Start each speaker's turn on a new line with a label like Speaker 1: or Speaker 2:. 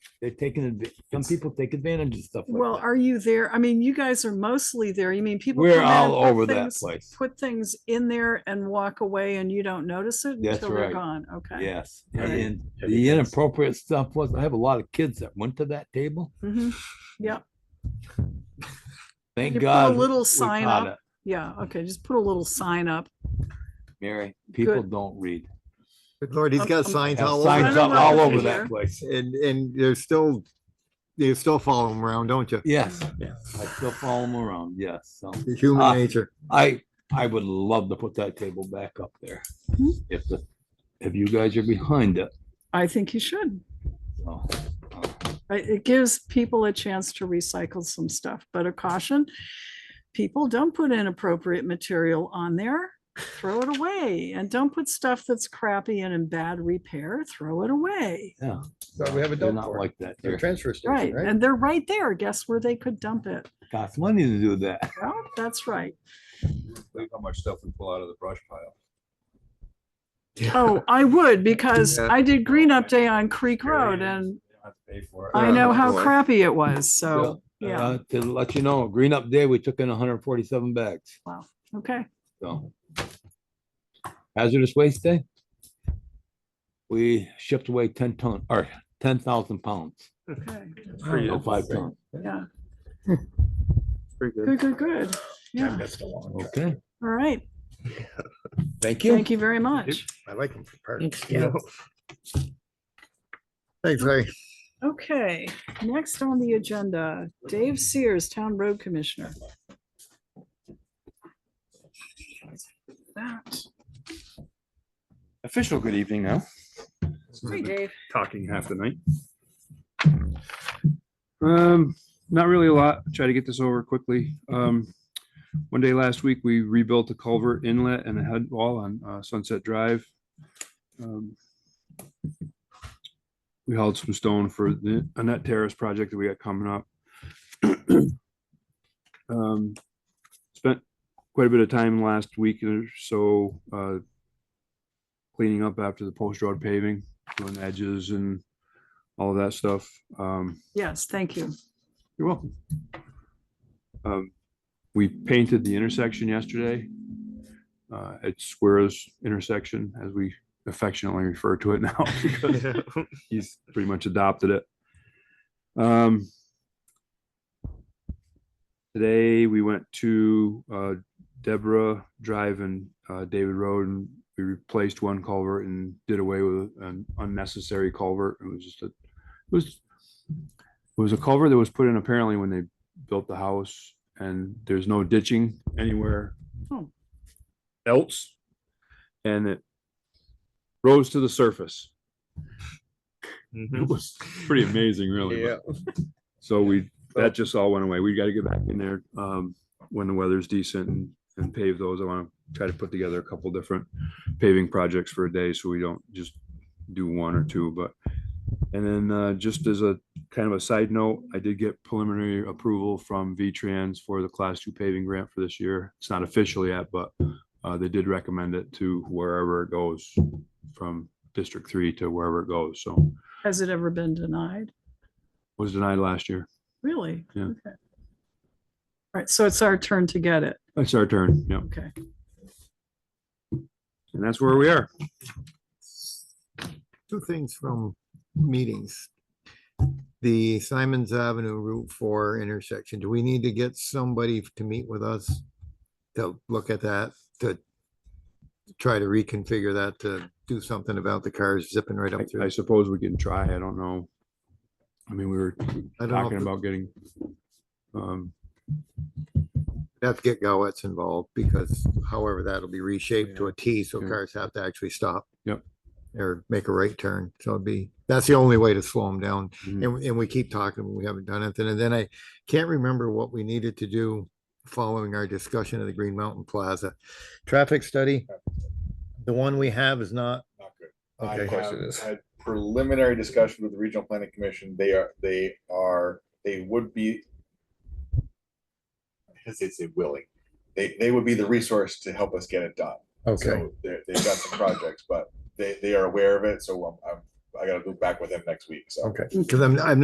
Speaker 1: They're taking, adv- some people take advantage of stuff
Speaker 2: Well,
Speaker 1: like that.
Speaker 2: are you there? I mean, you guys are mostly there. You mean people.
Speaker 1: We're
Speaker 2: come in and
Speaker 1: all
Speaker 2: put
Speaker 1: over that
Speaker 2: things-
Speaker 1: place.
Speaker 2: Put things in there and walk away and you don't notice it
Speaker 1: That's
Speaker 2: until they're
Speaker 1: right.
Speaker 2: gone. Okay.
Speaker 1: Yes,
Speaker 3: Have you-
Speaker 1: and
Speaker 3: have you
Speaker 1: the
Speaker 3: guys-
Speaker 1: inappropriate stuff was, I have a lot of kids that went to that table.
Speaker 2: Mhm. You
Speaker 1: Thank
Speaker 2: put a
Speaker 1: God.
Speaker 2: little
Speaker 1: we
Speaker 2: sign
Speaker 1: caught
Speaker 2: up.
Speaker 1: it,
Speaker 2: Yeah. Okay. Just put a little sign up.
Speaker 1: Mary, people don't read.
Speaker 4: Good Lord, he's
Speaker 2: Um,
Speaker 4: got
Speaker 2: um,
Speaker 4: signs
Speaker 1: Have
Speaker 4: all
Speaker 1: Signs
Speaker 2: I
Speaker 4: over,
Speaker 2: don't
Speaker 1: up
Speaker 2: know
Speaker 1: all
Speaker 2: if
Speaker 1: over
Speaker 2: they
Speaker 1: that
Speaker 2: are.
Speaker 1: place.
Speaker 4: and, and you're still, you still follow him around, don't you?
Speaker 1: Yes,
Speaker 4: Yeah.
Speaker 1: I still follow them around, yes, so.
Speaker 4: It's
Speaker 1: Uh,
Speaker 4: Human nature.
Speaker 1: I, I would love to put that table back up there.
Speaker 2: Mhm.
Speaker 1: If the, if you guys are behind it,
Speaker 2: I think you should.
Speaker 1: so.
Speaker 2: I- It gives people a chance to recycle some stuff, but a caution. People don't put inappropriate material on there. Throw it away and don't put stuff that's crappy and in bad repair. Throw it away.
Speaker 3: So we have a
Speaker 1: They're
Speaker 3: dump
Speaker 1: not
Speaker 3: for it.
Speaker 1: like that.
Speaker 3: The
Speaker 1: They're
Speaker 3: transfer station,
Speaker 2: Right.
Speaker 3: right?
Speaker 2: And they're right there. Guess where they could dump it?
Speaker 1: cost money to do that.
Speaker 2: Well, that's right.
Speaker 5: Look how much stuff we pull out of the brush pile.
Speaker 2: Oh, I would because
Speaker 4: Yeah.
Speaker 2: I did green up day on Creek Road and
Speaker 5: You don't have to pay for it.
Speaker 2: oh, I know how
Speaker 4: boy.
Speaker 2: crappy it was. So, yeah,
Speaker 1: Uh, To let you know, green up day, we took in hundred and forty-seven bags,
Speaker 2: okay.
Speaker 1: so. Hazardous waste day. We shipped away ten ton, or ten thousand pounds,
Speaker 2: Okay.
Speaker 3: Pretty
Speaker 1: no
Speaker 3: good.
Speaker 1: five ton,
Speaker 2: Yeah, good, good, good.
Speaker 3: I
Speaker 2: Yeah,
Speaker 3: missed a long one.
Speaker 1: okay?
Speaker 2: all right.
Speaker 3: Thank you.
Speaker 2: Thank you very much.
Speaker 3: I like them for parts.
Speaker 4: Thanks, Ray.
Speaker 2: Okay, next on the agenda, Dave Sears, Town Road Commissioner. That.
Speaker 6: official good evening now.
Speaker 2: Hey, Dave.
Speaker 6: Talking half the night. Um, not really a lot. Try to get this over quickly. Um, one day last week, we rebuilt a culvert inlet and a head wall on uh, Sunset Drive. Um, We hauled some stone for the Annette Terrace project that we got coming up. Um, Spent quite a bit of time last week or so, uh, cleaning up after the post road paving, doing edges and all of that stuff. Um,
Speaker 2: Yes, thank you.
Speaker 6: you're welcome. Um, we painted the intersection yesterday. Uh, it's Square's intersection, as we affectionately refer to it now. because He's pretty much adopted it. Um, today we went to, uh, Deborah Drive and, uh, David Road and we replaced one culvert and did away with an unnecessary culvert. It was just a, it was, it was a culvert that was put in apparently when they built the house and there's no ditching anywhere
Speaker 2: Oh.
Speaker 6: else. And it rose to the surface. It was pretty amazing, really.
Speaker 3: Yeah.
Speaker 6: So we, that just all went away. We gotta get back in there, um, when the weather's decent and, and pave those. I wanna try to put together a couple different paving projects for a day, so we don't just do one or two, but. And then, uh, just as a kind of a side note, I did get preliminary approval from V-Trans for the class two paving grant for this year. It's not official yet, but, uh, they did recommend it to wherever it goes from District Three to wherever it goes, so.
Speaker 2: Has it ever been denied?
Speaker 6: Was denied last year.
Speaker 2: Really?
Speaker 6: Yeah.
Speaker 2: Okay. All right, so it's our turn to get it.
Speaker 6: It's our turn, yeah.
Speaker 2: Okay.
Speaker 6: And that's where we are.
Speaker 4: Two things from meetings. The Simons Avenue Route Four intersection, do we need to get somebody to meet with us? To look at that, to try to reconfigure that, to do something about the cars zipping right
Speaker 6: I-
Speaker 4: up
Speaker 6: I
Speaker 4: through.
Speaker 6: suppose we can try. I don't know. I mean, we were
Speaker 4: I don't know
Speaker 6: talking
Speaker 4: if
Speaker 6: about getting, um,
Speaker 4: Have to get Gowetz involved because however, that'll be reshaped to a T, so
Speaker 6: Yeah.
Speaker 4: cars have to actually stop.
Speaker 6: Yep.
Speaker 4: Or make a right turn. So it'd be, that's the only way to slow them down.
Speaker 6: Mhm.
Speaker 4: And, we- and we keep talking, we haven't done anything. And then I can't remember what we needed to do following our discussion of the Green Mountain Plaza. Traffic study, the one we have is not,
Speaker 5: Not good. I
Speaker 4: okay,
Speaker 3: course
Speaker 5: have
Speaker 3: it is.
Speaker 5: had Preliminary discussion with the regional planning commission, they are, they are, they would be. I guess they'd say willing, they, they would be the resource to help us get it done.
Speaker 4: okay,
Speaker 5: So They, they've got some projects, but they, they are aware of it, so I'm, I'm, I gotta go back with them next week, so.
Speaker 4: okay. Cause I'm, I'm